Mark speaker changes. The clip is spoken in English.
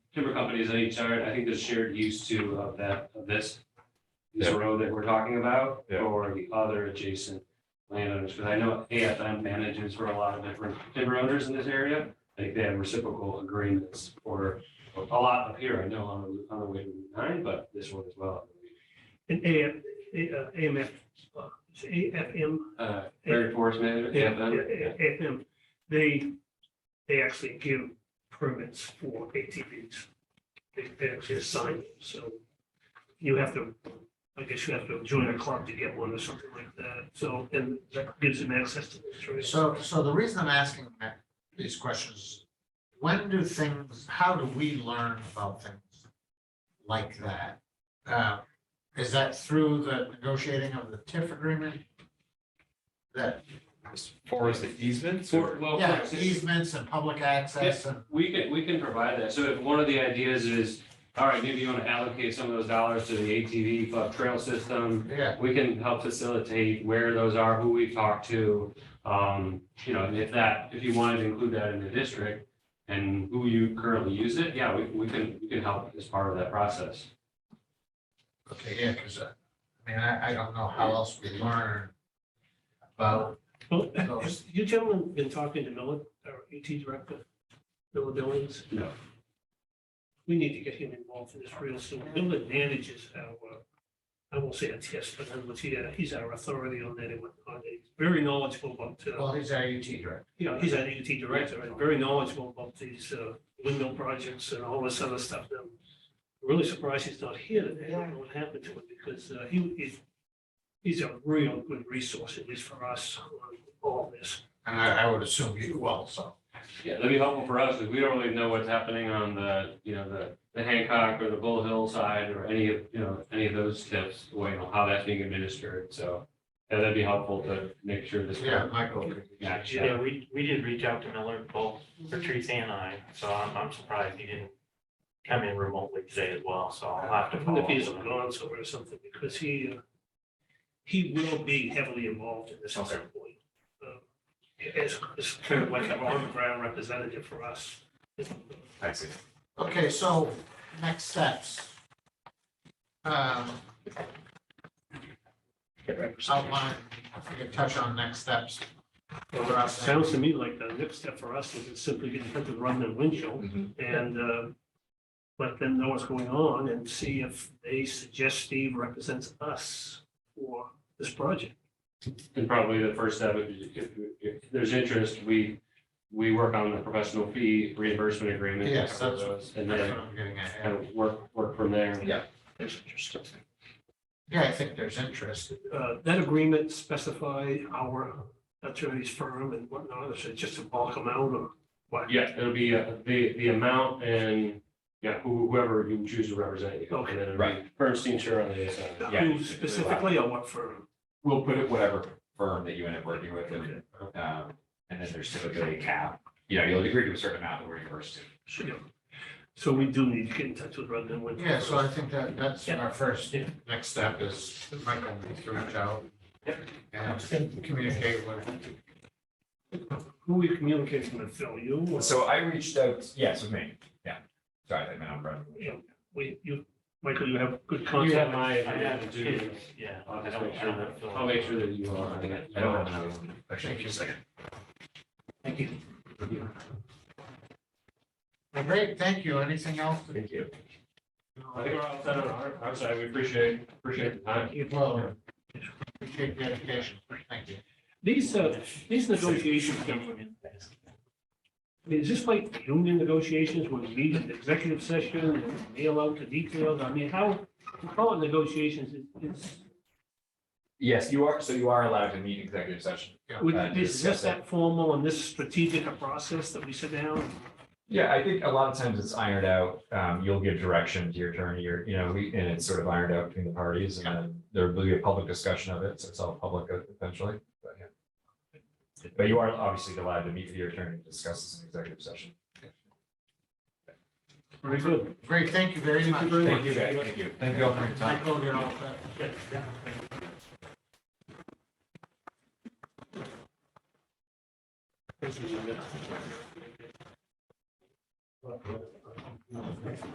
Speaker 1: timber companies on each yard, I think there's shared use too of that, of this. This
Speaker 2: Yeah.
Speaker 1: road that we're talking about,
Speaker 2: Yeah.
Speaker 1: or the other adjacent landowners, because I know AFM manages for a lot of different timber owners in this area. I think they have reciprocal agreements for for a lot up here, I know on the, on the way to Route nine, but this one as well.
Speaker 3: And AF, A- uh, AMF, uh, it's AFM,
Speaker 1: Uh, Prairie Forest Manager,
Speaker 3: yeah,
Speaker 1: AFM, yeah.
Speaker 3: yeah, AFM, they, they actually give permits for ATVs. They, they actually assign, them, so you have to, I guess you have to join a club to get one or something like that, so, and that gives them access to the trail.
Speaker 4: So, so the reason I'm asking that- these questions, when do things, how do we learn about things like that? Uh, Is that through the negotiating of the TIF agreement? That,
Speaker 2: As far as the easements
Speaker 1: For-
Speaker 2: or?
Speaker 1: well,
Speaker 4: yeah,
Speaker 1: for-
Speaker 4: easements and public access and,
Speaker 1: We can, we can provide that. So if one of the ideas is, all right, maybe you want to allocate some of those dollars to the ATV club trail system.
Speaker 4: yeah,
Speaker 1: We can help facilitate where those are, who we've talked to. Um, you know, and if that, if you wanted to include that in the district and who you currently use it, yeah, we, we can, we can help as part of that process.
Speaker 4: okay, yeah, because I I mean, I, I don't know how else we learn about,
Speaker 3: Well, have you gentlemen been talking to Miller, our AT director, Miller Billings?
Speaker 1: No.
Speaker 3: We need to get him involved in this real soon. Miller manages our, uh, I won't say a test, but I'm, he, uh, he's our authority on that and whatnot. He's very knowledgeable about, uh,
Speaker 4: well, he's our UT director.
Speaker 3: you know, he's our AT director and very knowledgeable about these uh, windmill projects and all this other stuff. And I'm Really surprised he's not here today. I don't know what happened to him because uh, he, he's, he's a real good resource, at least for us, on all this.
Speaker 4: And I, I would assume you also.
Speaker 1: Yeah, that'd be helpful for us, because we don't really know what's happening on the, you know, the, the Hancock or the Bull Hill side or any of, you know, any of those tips, you know, how that's being administered, so. Yeah, that'd be helpful to make sure this.
Speaker 4: Yeah, Michael. could-
Speaker 1: Match, yeah.
Speaker 5: Yeah, we, we did reach out to Miller, both Patrice and I, so I'm, I'm surprised he didn't come in remotely today as well, so I'll have
Speaker 3: I
Speaker 5: to
Speaker 3: wonder
Speaker 5: follow
Speaker 3: if
Speaker 5: up.
Speaker 3: he's
Speaker 5: with him.
Speaker 3: gone somewhere or something, because he, uh, he will be heavily involved in this at some point. Uh, As, as kind of like an on-ground representative for us.
Speaker 2: I see.
Speaker 4: Okay, so next steps. Um, Outline, if we could touch on next steps. for us.
Speaker 3: Sounds to me like the next step for us is simply get in touch with Run and Winchell
Speaker 2: Mhm.
Speaker 3: and uh, let them know what's going on and see if they suggest Steve represents us for this project.
Speaker 1: And probably the first step, if, if, if there's interest, we, we work on the professional fee reimbursement agreement.
Speaker 4: Yes, that's-
Speaker 1: those, And
Speaker 4: That's what
Speaker 1: then
Speaker 4: I'm getting at.
Speaker 1: kind
Speaker 4: yeah.
Speaker 1: of work, work from there.
Speaker 2: Yeah.
Speaker 4: Yeah, I think there's interest.
Speaker 3: Uh, That agreement specify our attorney's firm and whatnot, is it just to bulk them out or what?
Speaker 1: Yeah, it'll be uh, the, the amount and, yeah, who- whoever you choose to represent you.
Speaker 3: Okay.
Speaker 1: And then it'll be
Speaker 2: Right.
Speaker 1: Bernstein, sure, on the ASI.
Speaker 2: Yeah.
Speaker 3: Who specifically or what firm?
Speaker 2: We'll put it whatever firm that you end up working with and,
Speaker 3: Okay.
Speaker 2: um, and then there's typically a cap. You know, you'll agree to a certain amount that we're reimbursed to.
Speaker 3: Sure. So we do need to get in touch with Rutland and Winchell.
Speaker 4: Yeah, so I think that, that's our first,
Speaker 3: Yeah.
Speaker 4: next step is Michael needs to reach out. And communicate with,
Speaker 3: Who we communicating with, Phil, you? or-
Speaker 2: So I reached out, yes, with me, yeah. Sorry, I meant on Brett.
Speaker 3: Yeah, We, you, Michael, you have good
Speaker 1: You have
Speaker 3: contact.
Speaker 1: my,
Speaker 5: I have
Speaker 1: to,
Speaker 5: kids, yeah.
Speaker 1: I'll
Speaker 5: I
Speaker 1: just
Speaker 5: don't
Speaker 1: make sure
Speaker 5: have
Speaker 1: that,
Speaker 5: Phil.
Speaker 1: I'll make sure that you are.
Speaker 2: I don't have another one.
Speaker 4: Actually, just a second.
Speaker 3: Thank you.
Speaker 4: Well, great, thank you. Anything else?
Speaker 2: Thank you.
Speaker 1: I think we're all set on our, our side. We appreciate, appreciate the time.
Speaker 4: Well, appreciate the dedication. Thank you.
Speaker 3: These, uh, these negotiations, gentlemen, I mean, is this like union negotiations when we meet in executive session and mail out the details? I mean, how, we call it negotiations, it- it's,
Speaker 2: Yes, you are, so you are allowed to meet in executive session.
Speaker 3: would-
Speaker 2: Uh,
Speaker 3: is
Speaker 2: discuss
Speaker 3: this
Speaker 2: it.
Speaker 3: that formal and this strategic a process that we sit down?
Speaker 2: Yeah, I think a lot of times it's ironed out. Um, you'll give direction to your attorney or, you know, we, and it's sort of ironed out between the parties and then there will be a public discussion of it. So it's all public uh, eventually, but yeah. But you are obviously allowed to meet with your attorney to discuss this in executive session.
Speaker 3: Very good.
Speaker 4: Great, thank you very much.
Speaker 3: Thank you very much.
Speaker 2: Thank you guys. Thank you. Thank you all for your time.
Speaker 4: Michael, you're all set.